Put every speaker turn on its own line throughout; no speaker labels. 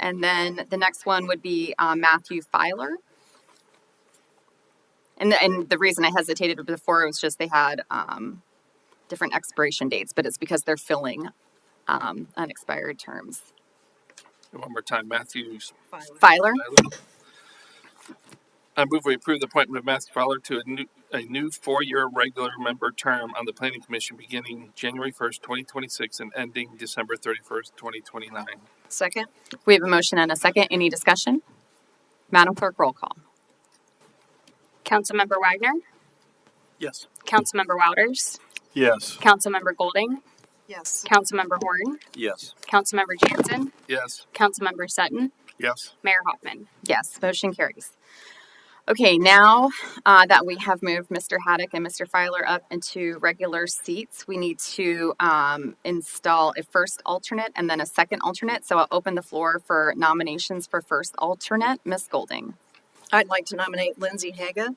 And then the next one would be uh, Matthew Filer. And, the- and the reason I hesitated before was just they had um, different expiration dates, but it's because they're filling um, unexpired terms.
And One more time, Matthews.
Filer,
I move we approve the appointment of Matthew Fowler to a new, a new four-year regular member term on the planning commission beginning January first, twenty twenty-six and ending December thirty-first, twenty twenty-nine.
Second?
we have a motion and a second. Any discussion? Madam Clerk, roll call.
Councilmember Wagner,
Yes.
Councilmember Wouters,
Yes.
Councilmember Golding,
Yes.
Councilmember Horn,
Yes.
Councilmember Jansen,
Yes.
Councilmember Sutton,
Yes.
Mayor Hoffman.
Yes, motion carries. Okay, now uh, that we have moved Mr. Haddock and Mr. Filer up into regular seats, we need to um, install a first alternate and then a second alternate. So I'll open the floor for nominations for first alternate. Ms. Golding,
I'd like to nominate Lindsay Haga.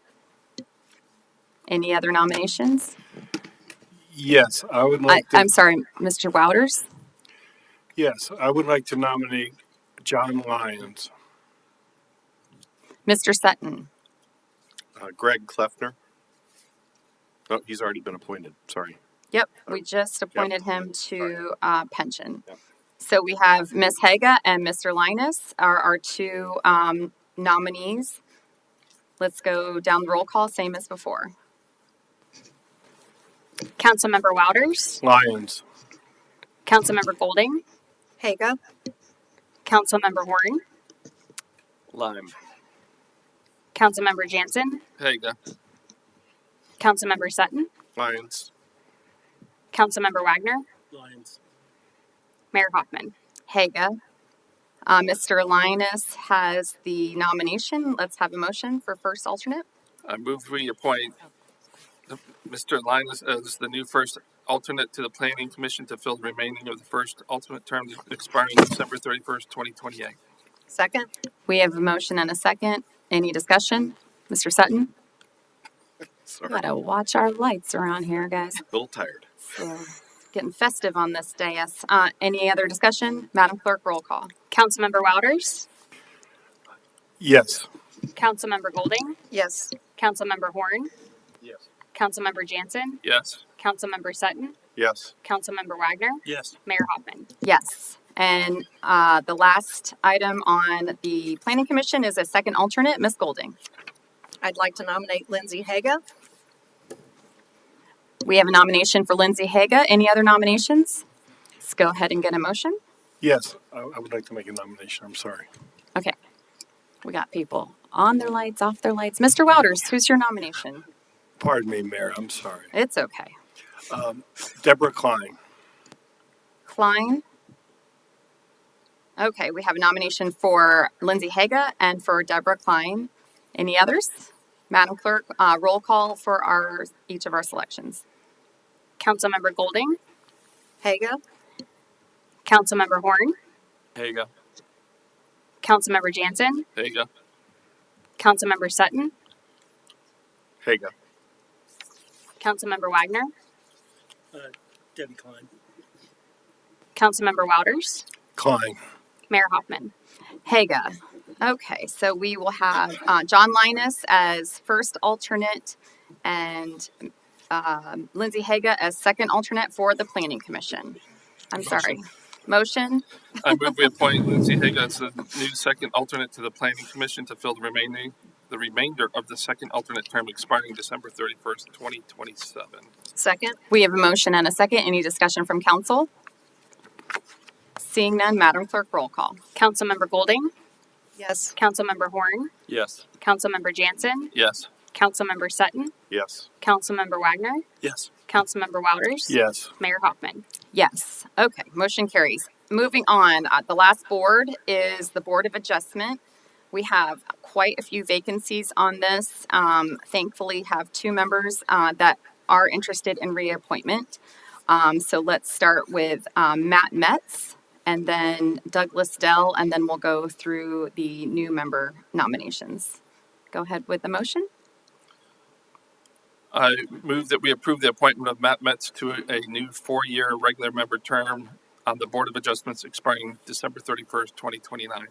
any other nominations?
Yes, I would
I,
like to.
I'm sorry, Mr. Wouters?
yes, I would like to nominate John Lyons.
Mr. Sutton?
Uh, Greg Kleffner. Oh, he's already been appointed. Sorry.
Yep, we just appointed him to uh, pension.
Yep.
So we have Ms. Haga and Mr. Linus are our two um, nominees. Let's go down the roll call, same as before.
Councilmember Wouters,
Lyons.
Councilmember Golding,
Haga?
Councilmember Horn,
Lime.
Councilmember Jansen,
Haga.
Councilmember Sutton,
Lyons.
Councilmember Wagner,
Lyons.
Mayor Hoffman.
Haga. Uh, Mr. Linus has the nomination. Let's have a motion for first alternate.
I move we appoint the- Mr. Linus as the new first alternate to the planning commission to fill the remaining of the first alternate term expiring December thirty-first, twenty twenty-eight.
Second?
We have a motion and a second. Any discussion? Mr. Sutton?
Sorry.
Gotta watch our lights around here, guys.
A little tired.
So getting festive on this dais. Uh, any other discussion? Madam Clerk, roll call.
Councilmember Wouters,
Yes.
Councilmember Golding,
Yes.
Councilmember Horn,
Yes.
Councilmember Jansen,
Yes.
Councilmember Sutton,
Yes.
Councilmember Wagner,
Yes.
Mayor Hoffman.
Yes. And uh, the last item on the Planning Commission is a second alternate, Ms. Golding.
I'd like to nominate Lindsay Haga.
We have a nomination for Lindsay Haga. Any other nominations? Let's go ahead and get a motion.
Yes, I, I would like to make a nomination. I'm sorry.
Okay. We got people on their lights, off their lights. Mr. Wouters, who's your nomination?
Pardon me, Mayor. I'm sorry.
It's okay.
Deborah Klein.
Klein. Okay, we have a nomination for Lindsay Haga and for Deborah Klein. Any others? Madam Clerk, uh, roll call for our each of our selections.
Councilmember Golding,
Haga?
Councilmember Horn,
Haga.
Councilmember Jansen,
Haga.
Councilmember Sutton,
Haga.
Councilmember Wagner,
Debbie Klein.
Councilmember Wouters,
Klein.
Mayor Hoffman.
Haga. Okay, so we will have uh, John Linus as first alternate and um, Lindsay Haga as second alternate for the Planning Commission. I'm sorry. Motion
I move we appoint Lindsay Haga as the new second alternate to the planning commission to fill the remaining, the remainder of the second alternate term expiring December thirty-first, twenty twenty-seven.
Second?
We have a motion and a second. Any discussion from council? Seeing none, Madam Clerk, roll call.
Councilmember Golding,
Yes.
Councilmember Horn,
Yes.
Councilmember Jansen,
Yes.
Councilmember Sutton,
Yes.
Councilmember Wagner,
Yes.
Councilmember Wouters,
Yes.
Mayor Hoffman.
Yes. Okay, motion carries. Moving on, uh, the last board is the Board of Adjustment. We have quite a few vacancies on this. Um, thankfully, have two members uh, that are interested in reappointment. Um, so let's start with um, Matt Metz and then Douglas Dell, and then we'll go through the new member nominations. Go ahead with the motion.
I move that we approve the appointment of Matt Metz to a new four-year regular member term on the Board of Adjustments expiring December thirty-first, twenty twenty-nine.